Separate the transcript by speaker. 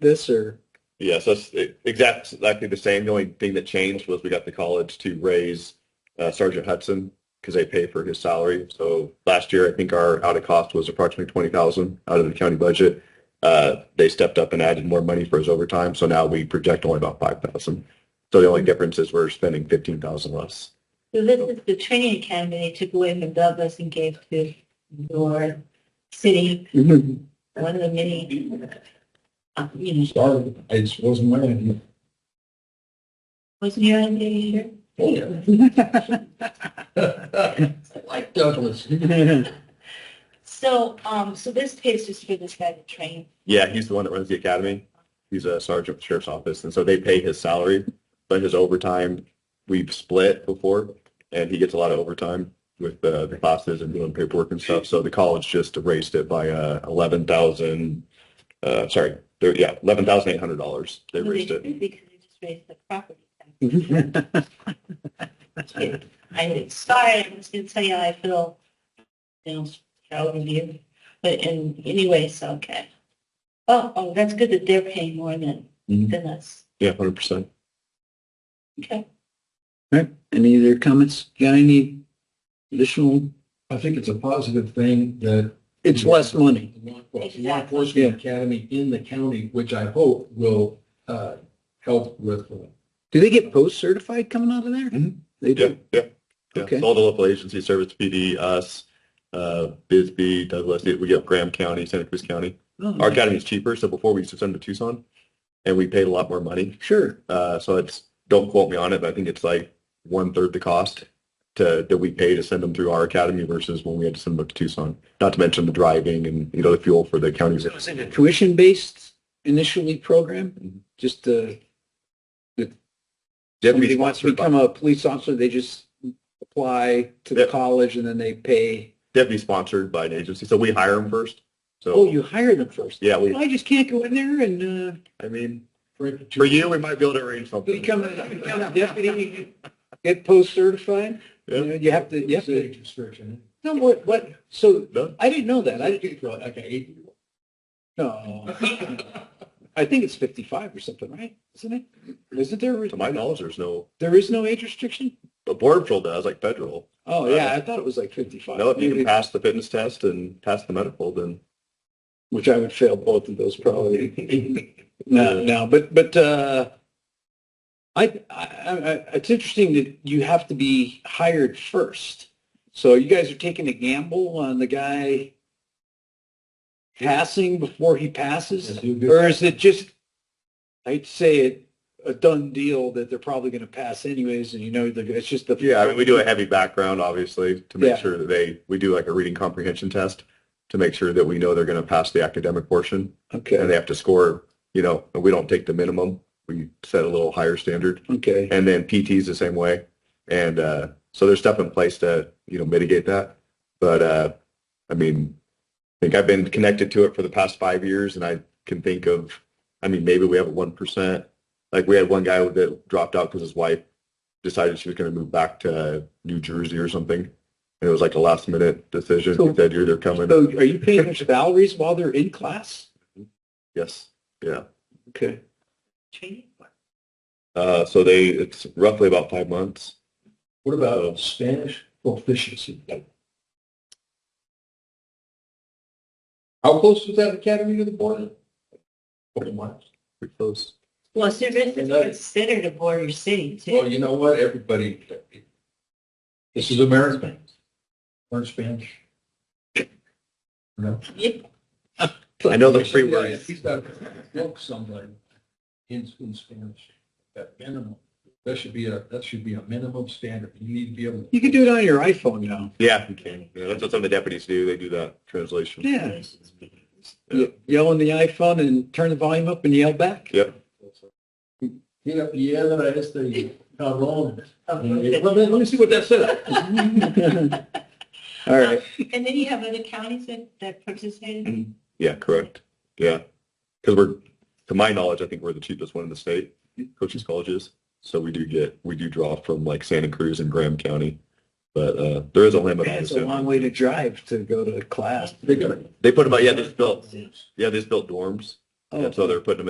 Speaker 1: this or?
Speaker 2: Yes, that's e- exact- exactly the same. The only thing that changed was we got the college to raise uh, Sergeant Hudson because they pay for his salary. So last year, I think our out of cost was approximately twenty thousand out of the county budget. Uh, they stepped up and added more money for his overtime. So now we project only about five thousand. So the only difference is we're spending fifteen thousand less.
Speaker 3: So this is the training academy they took away from Douglas and gave to your city,
Speaker 1: Mm-hmm.
Speaker 3: one of the many, uh, you know,
Speaker 1: Sorry, I just wasn't wearing
Speaker 3: wasn't your idea either?
Speaker 1: it. Like Douglas.
Speaker 3: So, um, so this pays just for this guy to train.
Speaker 2: Yeah, he's the one that runs the academy. He's a sergeant with the sheriff's office, and so they pay his salary, but his overtime we've split before, and he gets a lot of overtime with uh, the classes and doing paperwork and stuff. So the college just raised it by uh, eleven thousand. Uh, sorry, there- yeah, eleven thousand eight hundred dollars. They raised it.
Speaker 3: Because they just raised the property. tax. I'm sorry, I'm just gonna tell you how I feel, you know, proud of you, but in, anyway, so, okay. Oh, oh, that's good that they're paying more than,
Speaker 2: Mm-hmm.
Speaker 1: Mhm.
Speaker 3: than us,
Speaker 2: Yeah, hundred percent.
Speaker 3: okay.
Speaker 1: Any other comments? Got any additional? I think it's a positive thing that. It's less money.
Speaker 3: Law
Speaker 1: enforcement academy in the county, which I hope will uh, help with. uh, Mm-hmm. Do they get post-certified coming out of there?
Speaker 2: Mhm.
Speaker 1: They
Speaker 2: Yeah,
Speaker 1: do.
Speaker 2: yeah. yeah.
Speaker 1: Okay.
Speaker 2: So All the local agencies, Service PD, us, uh, Bisbee, Douglas. We get Graham County, Santa Cruz County.
Speaker 1: Oh,
Speaker 2: Our academy is cheaper, so before we used to send them to Tucson, and we paid a lot more money.
Speaker 1: Sure.
Speaker 2: Uh, so it's don't quote me on it, but I think it's like one third the cost to that we pay to send them through our academy versus when we had to send them to Tucson. Not to mention the driving and you know the fuel for the counties.
Speaker 1: So is it a tuition-based initially
Speaker 2: Mhm.
Speaker 1: program? Just, uh,
Speaker 2: You have to be
Speaker 1: somebody wants to
Speaker 2: sponsored by-
Speaker 1: become a police officer, they just apply to the
Speaker 2: Yeah.
Speaker 1: college and then they pay?
Speaker 2: they have to be sponsored by an agency, so we hire them first.
Speaker 1: Oh,
Speaker 2: So
Speaker 1: you hire them first?
Speaker 2: yeah, we.
Speaker 1: I just can't go in there and, uh,
Speaker 2: I mean, for you, we might be able to arrange something.
Speaker 1: become a become a deputy, get post-certified? You know,
Speaker 2: Yeah.
Speaker 1: you have to, you have to. No, what, what, so
Speaker 2: No?
Speaker 1: I didn't know that. I didn't. Like an eight? No. I think it's fifty-five or something, right? Isn't it? Isn't there,
Speaker 2: To my knowledge, there's no.
Speaker 1: there is no age restriction?
Speaker 2: But Border Patrol does, like federal.
Speaker 1: Oh, yeah, I thought it was like fifty-five.
Speaker 2: Uh, No, if you
Speaker 1: Maybe-
Speaker 2: can pass the fitness test and pass the medical, then
Speaker 1: Which I would fail both of those probably. No, no, but, but, uh, I, I, I, it's interesting that you have to be hired first. So you guys are taking a gamble on the guy passing before he passes? Or is it just, I'd say it, a done deal that they're probably going to pass anyways and you know, the- it's just the.
Speaker 2: Yeah, I mean, we do a heavy background, obviously, to
Speaker 1: Yeah.
Speaker 2: make sure that they, we do like a reading comprehension test to make sure that we know they're going to pass the academic portion and
Speaker 1: Okay,
Speaker 2: they have to score, you know, and we don't take the minimum. We set a little higher standard.
Speaker 1: okay.
Speaker 2: And then PT is the same way. And uh, so there's stuff in place to, you know, mitigate that. But uh, I mean, I think I've been connected to it for the past five years and I can think of, I mean, maybe we have a 1%. Like we had one guy that dropped out because his wife decided she was going to move back to New Jersey or something. And it was like a last minute decision.
Speaker 1: So-
Speaker 2: he said, you're, they're coming.
Speaker 1: So are you paying their salaries while they're in class?
Speaker 2: yes. Yeah.
Speaker 1: Okay.
Speaker 3: Training?
Speaker 2: Uh, so they, it's roughly about five months.
Speaker 1: What
Speaker 2: about
Speaker 1: Spanish proficiency? How close was that academy to the border? Forty miles.
Speaker 2: Pretty close.
Speaker 3: Well, so this is
Speaker 1: Another-
Speaker 3: considered a border city
Speaker 1: Well,
Speaker 3: too.
Speaker 1: you know what, everybody, this is America. Learn Spanish.
Speaker 3: Yeah.
Speaker 2: I know the free words.
Speaker 1: He's got to book somebody in, in Spanish, at minimum. That should be a, that should be a minimum standard. You need to be able. You can do it on your iPhone now.
Speaker 2: Yeah, you can. Yeah, that's what some of the deputies do. They do that translation.
Speaker 1: Ye- Yell on the iPhone and turn the volume up and yell back?
Speaker 2: Yep.
Speaker 1: Yeah, yeah, that is the, how long?
Speaker 3: Okay.
Speaker 1: let me see what that said. All right.
Speaker 3: And then you have other counties that, that participated?
Speaker 2: Yeah, correct. Yeah. Because we're, to my knowledge, I think we're the cheapest one in the state, coaches colleges. So we do get, we do draw from like Santa Cruz and Graham County. But uh, there is a limit.
Speaker 1: That's a
Speaker 2: obviously.
Speaker 1: long way to drive to go to class.
Speaker 2: They put them, out- yeah, they just built, yeah, they just built dorms.
Speaker 1: Oh.
Speaker 2: And so they're putting them in